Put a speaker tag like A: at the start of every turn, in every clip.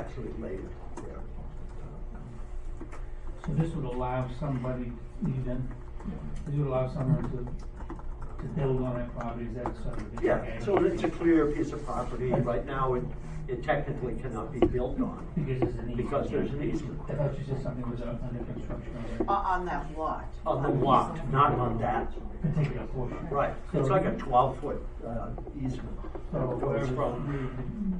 A: actually later, yeah.
B: So this would allow somebody, even, this would allow someone to, to build on that property, is that sort of? the
A: Yeah,
B: game?
A: so it's a clear piece of property, right now it, it technically cannot be built on,
B: Because there's an easement.
A: because there's an easement.
B: I thought you said something was uh, under construction already,
C: O- Uh, On that lot.
A: On the lot, not on that,
B: particular portion.
A: right, it's like a twelve foot, uh, easement.
B: So
A: It goes
B: wherever
A: from,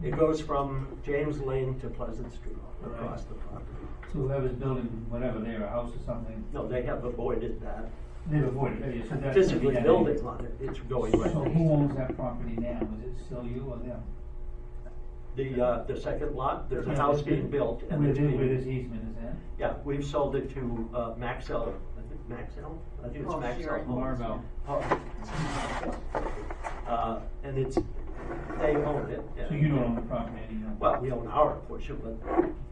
B: the-
A: it goes from James Lane to Pleasant Street across
B: Right.
A: the property.
B: so whoever's building, whatever, there, a house or something,
A: No, they have avoided that,
B: they've avoided, it, so that's.
A: physically building on it, it's going
B: So
A: right
B: who
A: next.
B: owns that property now, is it still you or them?
A: The, uh, the second lot, there's a house being built and
B: Where
A: it's
B: the-
A: being.
B: Where this easement is at?
A: Yeah, we've sold it to uh, Maxell, I think Maxell, I think it's
C: Oh,
A: Maxell.
C: Sharon.
A: Homes.
B: Marvell.
A: Oh. Uh, And it's, they own it.
B: So you don't own the property anymore?
A: Well, we own our portion, but,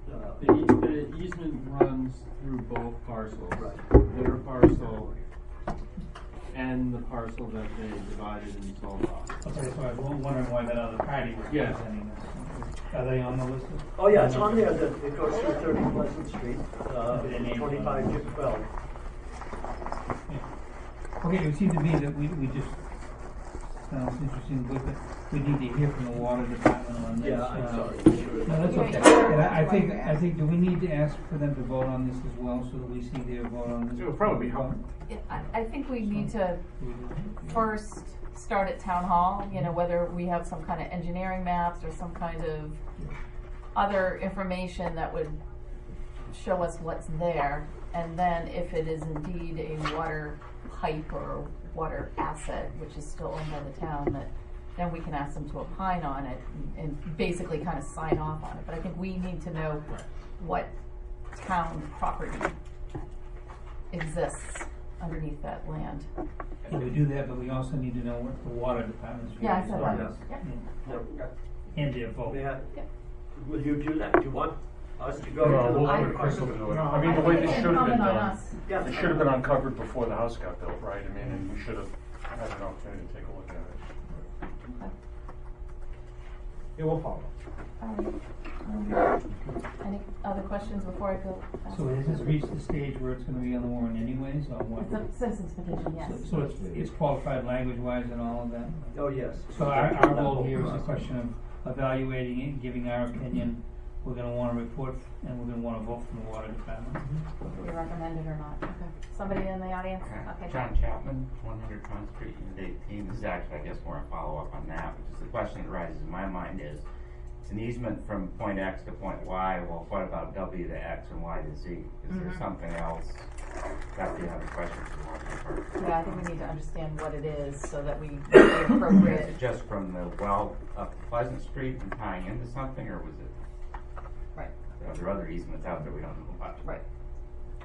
D: The,
A: uh,
D: eas- the easement runs through both parcels.
A: Right.
D: Their parcel and the parcel that they divided and sold off.
B: Okay, so I was wondering why that other party was
D: Yeah.
B: presenting this. Are they on the list?
A: oh yeah, it's on there, that it goes through thirty Pleasant Street, uh,
B: The name.
A: twenty-five to twelve.
B: Yeah. Okay, it would seem to me that we, we just, sounds interesting, but that we need to hear from the water department on this.
A: Yeah, I'm
B: uh,
A: sorry.
B: No, that's
C: Yeah,
B: okay.
C: yeah.
B: And I, I think, I think, do we need to ask for them to vote on this as well, so that we see their vote on this?
D: It would probably be helpful.
E: Yeah, I, I think we need to first start at town hall, you know, whether we have some kind of engineering maps or some kind of other information that would show us what's there. And then if it is indeed a water pipe or water asset, which is still owned by the town, that then we can ask them to opine on it and and basically kind of sign off on it. But I think we need to know what town property exists underneath that land.
B: Yeah, we do that, but we also need to know what the water department's.
E: Yeah, I
B: view is
E: said
B: on
A: that.
B: this.
E: Yeah.
B: Yeah. And their vote.
A: Matt,
E: Yeah.
A: will you do that? Do you want us to go
F: No,
A: to the
F: we'll
E: I-
F: let
A: water
F: Crystal
A: department?
F: do it.
B: No,
F: I mean, the way this
E: I- I-
F: should have been
E: comment on
F: done,
E: us.
A: Yeah.
F: it should have been uncovered before the house got built, right? I mean, and we should have had an opportunity to take a look at it.
A: It will follow.
E: Um, um, Any other questions before I go? back?
B: So has this reached the stage where it's gonna be on the warrant anyways, or
E: It's a
B: what?
E: citizen's petition, yes.
B: So it's, it's qualified language-wise and all of that?
A: Oh, yes.
B: So our, our goal here is a question of evaluating it, giving our opinion. We're gonna wanna report, and we're gonna wanna vote from the water department.
E: You recommend it or not? Okay. Somebody in the audience? Okay.
G: John Chapman, one hundred Front Street, unit eighteen, this is actually, I guess, more a follow-up on that, which is the question that rises in my mind is, it's an easement from point X to point Y, well, what about W to X and Y to Z? Is there
E: Mhm.
G: something else? That's the other question for the water department.
E: Yeah, I think we need to understand what it is so that we make the appropriate.
G: Is it just from the well up Pleasant Street and tying into something, or was it,
E: Right,
G: are there other easements out there we don't know about?
E: right.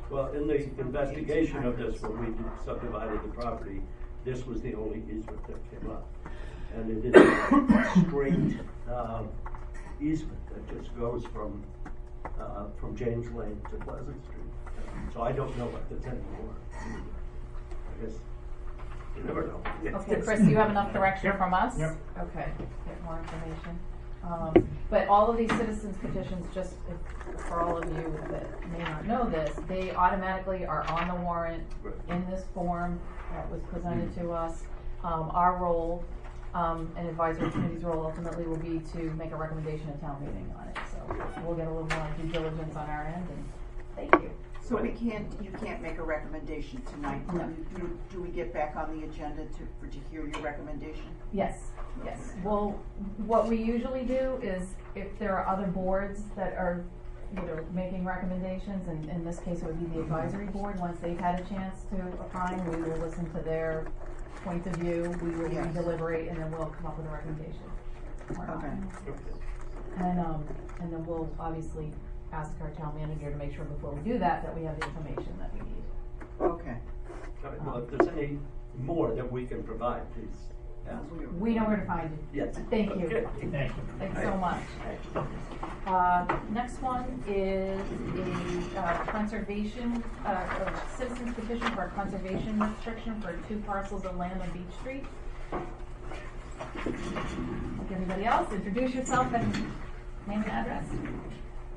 A: Well, in the investigation of this, when we subdivided the property, this was the only easement that came up. And it is a straight, uh, easement that just goes from, uh, from James Lane to Pleasant Street. So I don't know what that's anymore. I guess, you never know.
E: Okay, Chris, do you have enough direction from us?
B: Yep.
E: Okay, get more information. Um, but all of these citizens petitions, just if- for all of you that may not know this, they automatically are on the warrant
A: Right.
E: in this form that was presented to us. Um, our role, um, and advisory committee's role ultimately will be to make a recommendation at town meeting on it. So we'll get a little more due diligence on our end and thank you.
C: So we can't, you can't make a recommendation tonight. Do
E: No.
C: you- Do, do we get back on the agenda to, for, to hear your recommendation?
E: Yes, yes. Well, what we usually do is if there are other boards that are, you know, making recommendations, and in this case, it would be the advisory board, once they've had a chance to opine, we will listen to their points of view, we will
C: Yes.
E: deliberate, and then we'll come up with a recommendation. or not.
C: Okay.
E: And, um, and then we'll obviously ask our town manager to make sure before we do that, that we have the information that we need.
C: Okay.
A: All right, Well, if there's any more that we can provide, please ask.
E: We know where to find you.
A: Yes.
E: Thank you.
A: Okay.
B: Thank you.
E: Thanks so much. Uh, Next one is a uh, conservation, uh, a citizen's petition for a conservation restriction for two parcels of land on Beach Street. Like everybody else, introduce yourself and name and address.